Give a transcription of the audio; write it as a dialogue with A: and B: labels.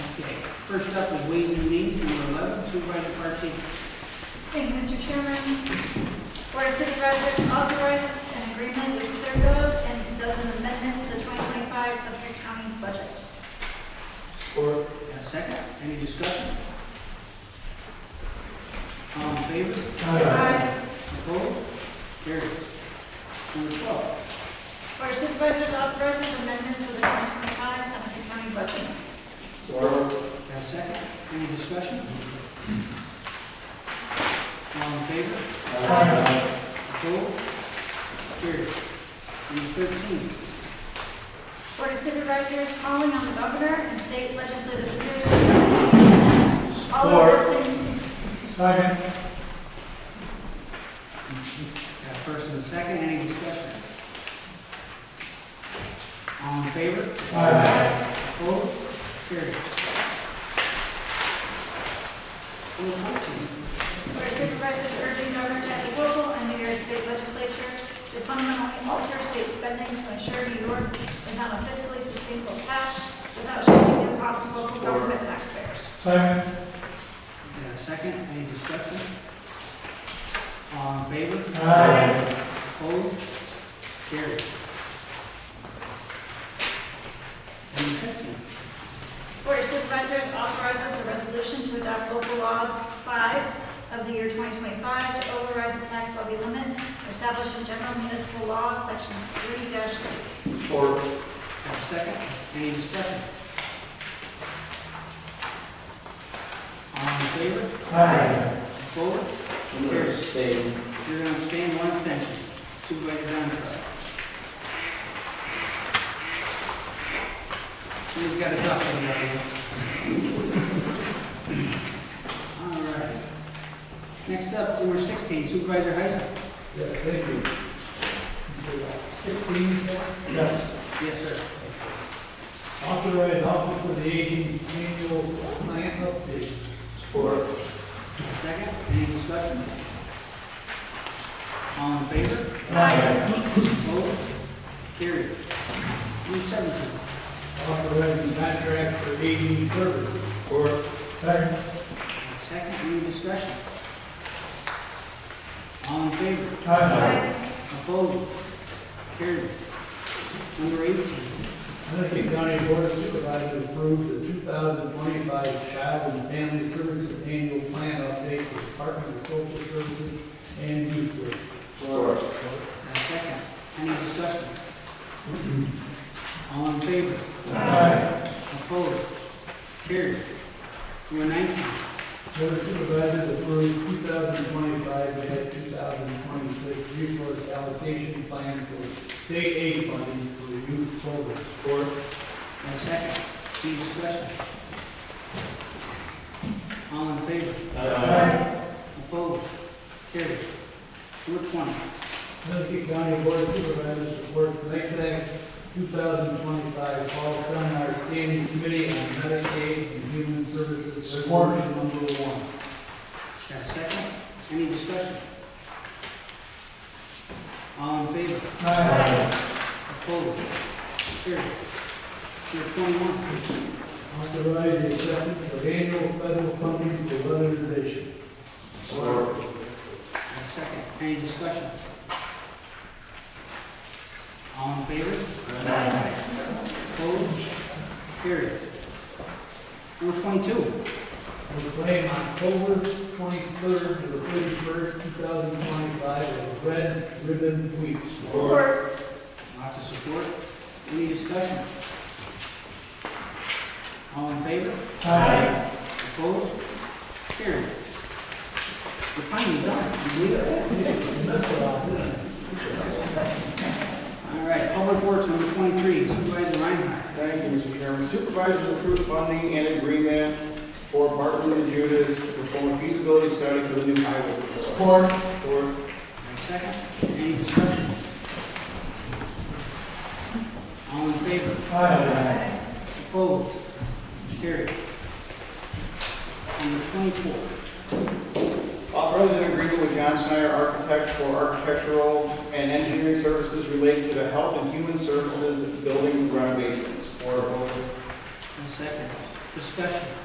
A: First up is Ways and Means, number 11, Supervisor Parcheesi.
B: Thank you, Mr. Chairman. Board of City Residents authorizes an agreement with Clearfield and does an amendment to the 2025 Suffolk County budget.
A: Support. And a second, any discussion? All in favor?
B: Aye.
A: Opposed? Carried. Number 12,
B: Board of Supervisors authorizes amendments to the 2025 Suffolk County budget.
A: and a second, any discussion? All in favor? Opposed? Carried. Number 13,
B: Board of Supervisors calling on the governor and state legislative leaders to implement all existing,
C: Second.
A: Got a first and a second, any discussion? All in favor?
C: Aye.
A: Opposed? Carried. Number fourteen,
B: Board of Supervisors urging Governor Kathy Hochul and New York State Legislature to fundamentally alter state spending to ensure New York is on a fiscally sustainable path without shifting the cost to local government taxpayers.
C: Second.
A: got a second, any discussion? All in favor?
C: Aye.
A: Opposed? Carried. Number fifteen,
B: Board of Supervisors authorizes a resolution to adopt local law 5 of the year 2025 to override the tax levy limit established in general municipal law, section 3-6.
A: got a second, any discussion? All in favor?
C: Aye.
A: Opposed?
D: I'm going to abstain.
A: You're going to abstain, one abstention. Supervisor Dontrell. He's got a duck in the audience. All right. Next up, number 16, Supervisor Heisen.
C: Yeah, thank you. Sixteen, yes.
A: Yes, sir.
C: Authorize office for the aging annual plan update.
D: Support.
A: Second, any discussion? All in favor? Opposed? Carried. Number 17,
C: Authorize the contract for aging services. Support. Second.
A: second, any discussion? All in favor? Opposed? Carried. Number 18,
C: Lincoln County Board of Supervisors approved the 2025 Child and Family Services Annual Plan Update for Department of Social Services and Youth Work.
D: Support.
A: and a Uh, second. Any discussion? All in favor?
C: Aye.
A: Opposed? Carried. Number 19,
C: Board of Supervisors approved 2025 and 2026 Resource Allocation Plan for State Aid Funding for the Youth Program. Support.
A: and a Uh, second. Any discussion? All in favor? Opposed? Carried. Number 20,
C: Lincoln County Board of Supervisors supports NICEAG 2025 Fall Seminar Standing Committee on Medicaid and Human Services. Support. Number one.
A: got a second? Any discussion? All in favor? Opposed? Carried. Number 21,
C: Authorize the acceptance of annual federal funding for weatherization.
D: Support.
A: And second, any discussion? All in favor? Opposed? Carried. Number twenty-two,
C: Proclaim October 23rd to the 31st, 2025 as Red Ribbon Week.
B: Support.
A: lots of support. Any discussion? All in favor? Opposed? Carried. We're finally done. Can you believe it? All right, Public Works, number twenty-three, Supervisor Reinhardt.
E: Thank you, Mr. Chairman. Supervisors approved funding and agreement for Barton and Judas to perform a feasibility study for the new highway facility.
C: Support.
E: Support.
A: And second, any discussion? All in favor? Opposed? Carried. Number twenty-four,
E: Authorize an agreement with John Snyder Architects for architectural and engineering services related to the health and human services building renovations. Support.
A: and second, discussion.